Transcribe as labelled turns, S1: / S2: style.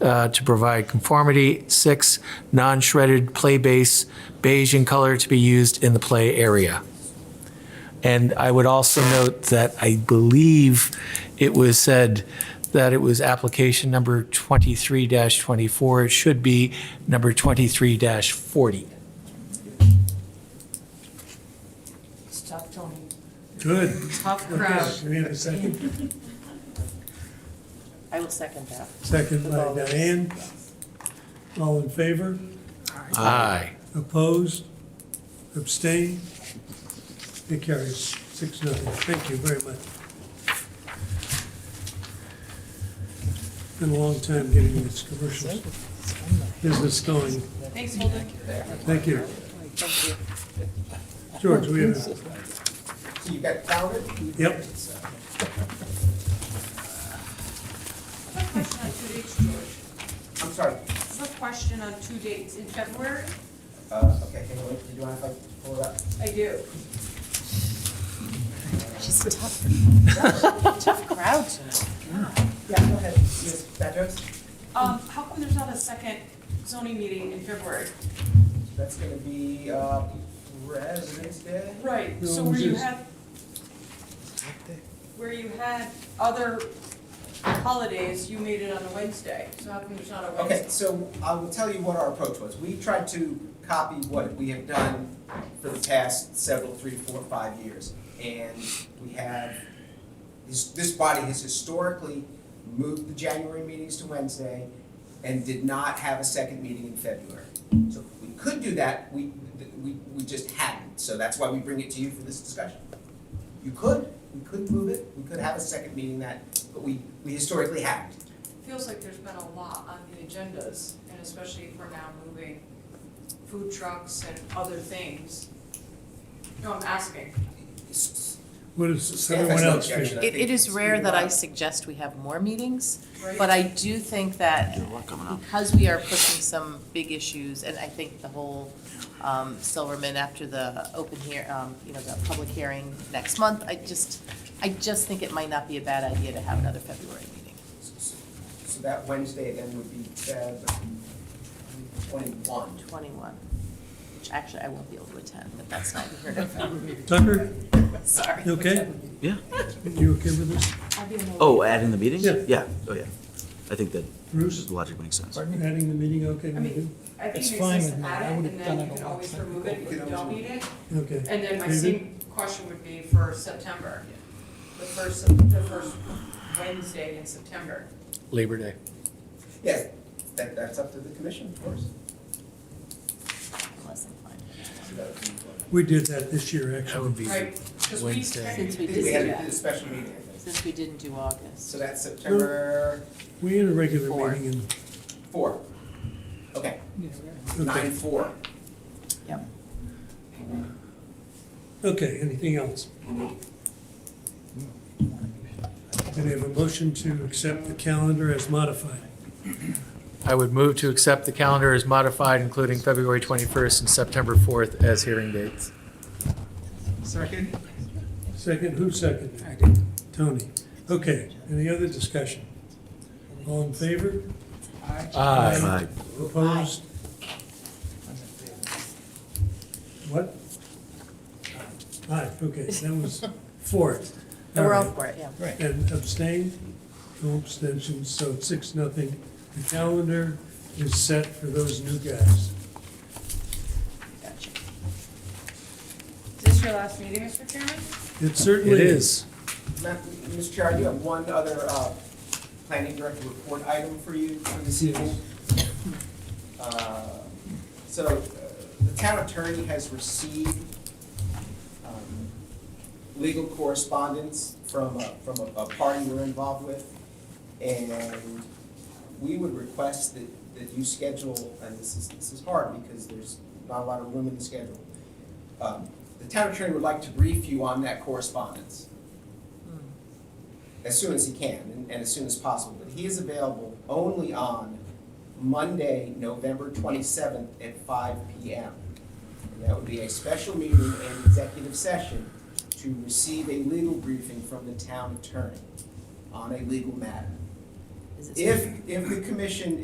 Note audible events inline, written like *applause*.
S1: uh, to provide conformity. Six, non-shredded play base beige in color to be used in the play area. And I would also note that I believe it was said that it was application number 23-24. It should be number 23-40.
S2: It's tough, Tony.
S3: Good.
S2: Tough crowd.
S3: Okay, we have a second,
S2: I will second that.
S3: second by Diane. All in favor?
S1: Aye.
S3: Opposed? Abstained? It carries six nothing. Thank you very much. Been a long time getting this commercial business going.
S2: Thanks, Holden.
S3: Thank you. George, we have,
S4: So you got counted?
S3: yep,
S5: I have a question on two dates, George.
S4: I'm sorry,
S5: I have a question on two dates in February.
S4: uh, okay, can you, do you want to like, pull it up?
S5: I do.
S2: She's tough. Tough crowd tonight.
S4: Yeah, go ahead, Ms. Bedros,
S5: Um, how come there's not a second zoning meeting in February?
S4: that's gonna be, uh, President's Day?
S5: Right, so
S3: No,
S5: where you
S3: just-
S5: had, where you had other holidays, you made it on a Wednesday. So how come there's not a
S4: Okay,
S5: Wednesday?
S4: so I will tell you what our approach was. We tried to copy what we have done for the past several, three, four, five years. And we have, this, this body has historically moved the January meetings to Wednesday and did not have a second meeting in February. So we could do that, we, we, we just hadn't. So that's why we bring it to you for this discussion. You could, we could move it, we could have a second meeting that, but we, we historically haven't.
S5: Feels like there's been a lot on the agendas, and especially if we're now moving food trucks and other things. No, I'm asking.
S3: what does
S4: Yeah, that's
S3: everyone
S4: no
S3: else
S4: objection.
S3: feel?
S2: It, it is rare that I suggest we have more meetings,
S5: Right.
S2: but I do think that because we are pushing some big issues, and I think the whole um, Silverman after the open here, um, you know, the public hearing next month, I just, I just think it might not be a bad idea to have another February meeting.
S4: So that Wednesday then would be Feb
S2: *laughs*
S4: twenty-one.
S2: Twenty-one, which actually I won't be able to attend, but that's not here now.
S3: Tucker,
S2: Sorry.
S3: you okay?
S6: Yeah.
S3: You okay with this?
S6: Oh, adding the meeting?
S3: Yeah.
S6: Yeah, oh, yeah. I think that
S3: Bruce,
S6: logic makes sense.
S3: adding the meeting, okay?
S5: I
S3: with
S5: mean,
S3: you?
S5: I
S7: It's
S5: think it
S7: fine
S5: makes sense
S7: with me.
S5: to
S7: I
S5: add it,
S7: would've
S5: and
S7: done
S5: then
S7: it
S5: you
S7: a
S5: can
S7: long
S5: always
S7: time
S5: remove it if you don't need it.
S3: Okay.
S5: And then my
S3: David?
S5: same question would be for September, the first, the first Wednesday in September.
S1: Labor Day.
S4: Yes, that, that's up to the commission, of course.
S2: Unless I'm fine.
S4: So that would be-
S3: We did that this year,
S1: That
S3: actually.
S1: would be
S5: Right, because we
S1: Wednesday.
S2: Since
S5: technically
S2: we
S4: We
S2: did
S4: had a
S2: that,
S4: special meeting, I think.
S2: since we didn't do August.
S4: So that's September
S3: We had a regular
S2: Four.
S3: meeting
S4: four. Okay,
S3: in, okay,
S4: nine-four.
S2: Yep.
S3: okay, anything else? And I have a motion to accept the calendar as modified.
S1: I would move to accept the calendar as modified, including February 21st and September 4th as hearing dates.
S4: Second?
S3: Second, who seconded?
S7: I did.
S3: Tony. Okay, any other discussion? All in favor?
S1: Aye.
S6: Aye.
S3: Opposed? What? Aye, okay, that was four.
S2: And We're
S3: All
S2: all
S3: right.
S2: for it, yeah.
S3: And abstained, no abstentions, so it's six, nothing. The calendar is set for those new guys.
S2: Gotcha.
S5: Is this your last meeting, Mr. Chairman?
S3: It
S1: It
S3: certainly is.
S1: is.
S4: Ma- Mr. Chair, I do have one other uh, planning director report item for you for this evening. Uh, So uh, the town attorney has received um, legal correspondence from, a- from a- a party we're involved with. And we would request that, that you schedule, and this is, this is hard because there's not a lot of room in the schedule. Um, The town attorney would like to brief you on that correspondence as soon as he can and, and as soon as possible. But he is available only on Monday, November twenty-seventh at five P M. And that would be a special meeting and executive session to receive a legal briefing from the town attorney on a legal matter.
S2: Is it-
S4: If, if the commission